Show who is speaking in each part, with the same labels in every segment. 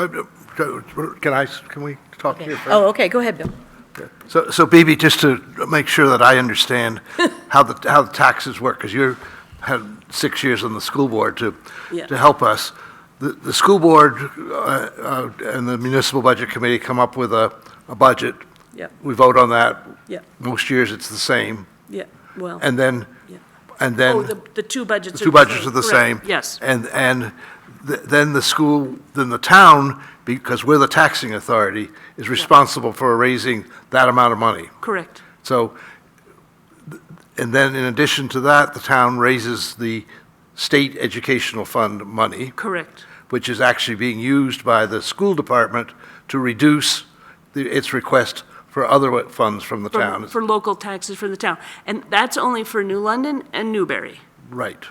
Speaker 1: Uh, uh, so, Can I, can we talk here first?
Speaker 2: Oh, okay, go ahead, Bill.
Speaker 1: So, so Bibi, just to make sure that I understand how the, how the taxes work, because you had six years on the school board to,
Speaker 2: Yeah.
Speaker 1: to help us. The, the school board uh, uh, and the municipal budget committee come up with a, a budget.
Speaker 2: Yeah.
Speaker 1: We vote on that.
Speaker 2: Yeah.
Speaker 1: Most years, it's the same.
Speaker 2: Yeah, well.
Speaker 1: And then,
Speaker 2: Yeah.
Speaker 1: and then.
Speaker 2: Oh, the, the two budgets are the
Speaker 1: Two budgets are the
Speaker 2: Correct,
Speaker 1: same.
Speaker 2: Yes,
Speaker 1: And, and th- then the school, then the town, because we're the taxing authority, is responsible for raising that amount of money.
Speaker 2: correct.
Speaker 1: So, th- and then in addition to that, the town raises the state educational fund money,
Speaker 2: Correct.
Speaker 1: which is actually being used by the school department to reduce the- its request for other funds from the
Speaker 2: For-
Speaker 1: town.
Speaker 2: For local taxes for the town. And that's only for New London and Newberry.
Speaker 1: Right.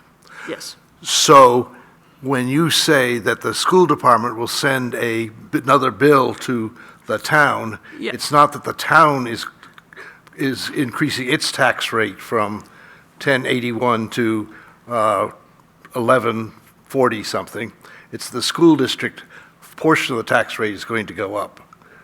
Speaker 2: Yes,
Speaker 1: So when you say that the school department will send a, another bill to the town,
Speaker 2: Yeah.
Speaker 1: it's not that the town is, is increasing its tax rate from 1081 to uh, 1140 something. It's the school district portion of the tax rate is going to go up.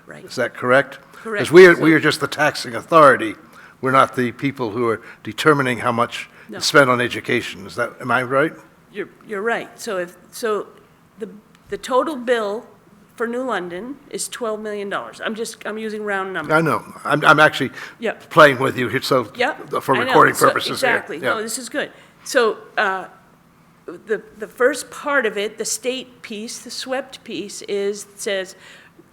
Speaker 2: Right.
Speaker 1: Is that correct?
Speaker 2: Correct.
Speaker 1: Because we are, we are just the taxing authority. We're not the people who are determining how much
Speaker 2: No.
Speaker 1: is spent on education. Is that, am I right?
Speaker 2: you're, you're right. So if, so the, the total bill for New London is $12 million. I'm just, I'm using round numbers.
Speaker 1: I know. I'm, I'm actually
Speaker 2: Yep.
Speaker 1: playing with you here, so.
Speaker 2: Yep.
Speaker 1: For
Speaker 2: I know.
Speaker 1: recording
Speaker 2: So-
Speaker 1: purposes here.
Speaker 2: Exactly. No,
Speaker 1: Yeah.
Speaker 2: this is good. So uh, the, the first part of it, the state piece, the swept piece is, says,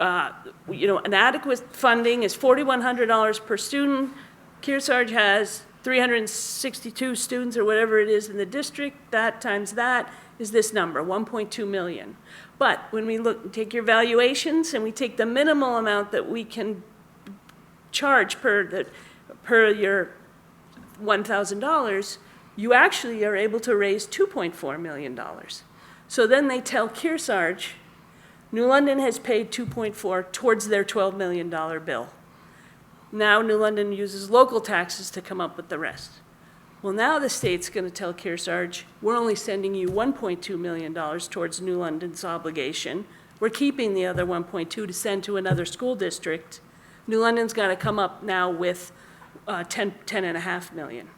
Speaker 2: uh, you know, an adequate funding is $4,100 per student. Kearsarge has 362 students or whatever it is in the district. That times that is this number, 1.2 million. But when we look, take your valuations and we take the minimal amount that we can charge per the, per your one thousand dollars, you actually are able to raise two point four million dollars. So then they tell Kearsarge, New London has paid two point four towards their twelve million dollar bill. Now New London uses local taxes to come up with the rest. Well, now the state's gonna tell Kearsarge, we're only sending you one point two million dollars towards New London's obligation. We're keeping the other one point two to send to another school district. New London's gotta come up now with, uh, ten, ten and a half million.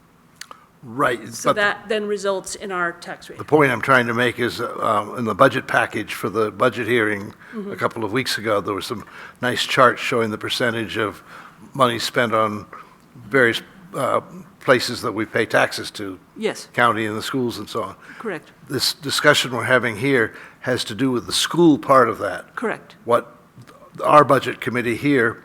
Speaker 1: Right.
Speaker 2: So
Speaker 1: But the-
Speaker 2: that then results in our tax rate.
Speaker 1: the point I'm trying to make is, um, in the budget package for the budget hearing
Speaker 2: Mm-hmm.
Speaker 1: a couple of weeks ago, there was some nice charts showing the percentage of money spent on various, uh, places that we pay taxes to,
Speaker 2: Yes,
Speaker 1: county and the schools and so on.
Speaker 2: correct,
Speaker 1: This discussion we're having here has to do with the school part of that.
Speaker 2: correct.
Speaker 1: what our budget committee here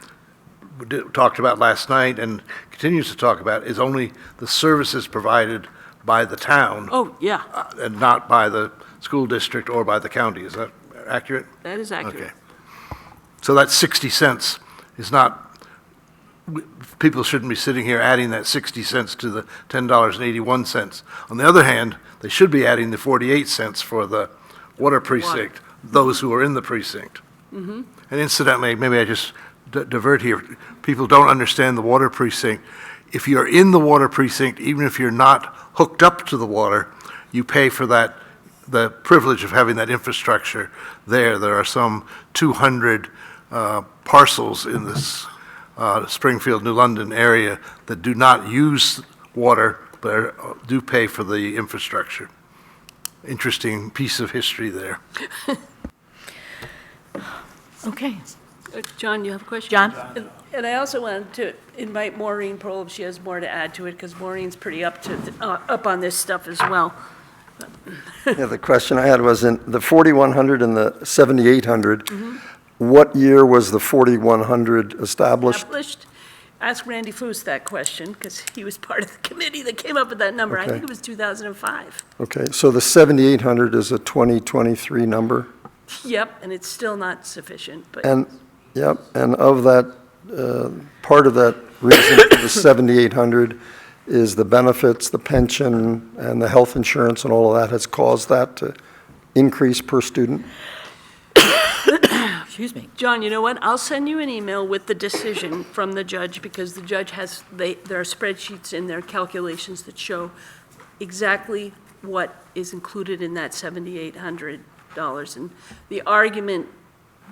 Speaker 1: d- talked about last night and continues to talk about is only the services provided by the town
Speaker 2: Oh, yeah,
Speaker 1: uh, and not by the school district or by the county. Is that accurate?
Speaker 2: that is
Speaker 1: Okay.
Speaker 2: accurate.
Speaker 1: So that 60 cents is not, we- people shouldn't be sitting here adding that 60 cents to the $10.81. On the other hand, they should be adding the 48 cents for the water precinct, those who are in the precinct. And incidentally, maybe I just d- divert here, people don't understand the water precinct. If you're in the water precinct, even if you're not hooked up to the water, you pay for that, the privilege of having that infrastructure there. There are some 200 uh, parcels in this uh, Springfield, New London area that do not use water, but are- do pay for the infrastructure. Interesting piece of history there.
Speaker 3: Okay.
Speaker 2: Uh, John, you have a question?
Speaker 3: John?
Speaker 2: And- And I also wanted to invite Maureen Pearl if she has more to add to it, because Maureen's pretty up to, th- uh, up on this stuff as well.
Speaker 4: Yeah, the question I had was in the 4,100 and the 7,800, what year was the 4,100 established?
Speaker 2: Established, ask Randy Foose that question, because he was part of the committee that came up with that number. I
Speaker 4: Okay.
Speaker 2: think it was 2005.
Speaker 4: Okay, so the 7,800 is a 2023 number?
Speaker 2: Yep, and it's still not sufficient, but.
Speaker 4: And, yep, and of that, uh, part of that reason for the 7,800 is the benefits, the pension, and the health insurance and all of that has caused that to increase per student?
Speaker 3: Excuse me.
Speaker 2: John, you know what? I'll send you an email with the decision from the judge, because the judge has, they, there are spreadsheets in their calculations that show exactly what is included in that seventy-eight hundred dollars. And the argument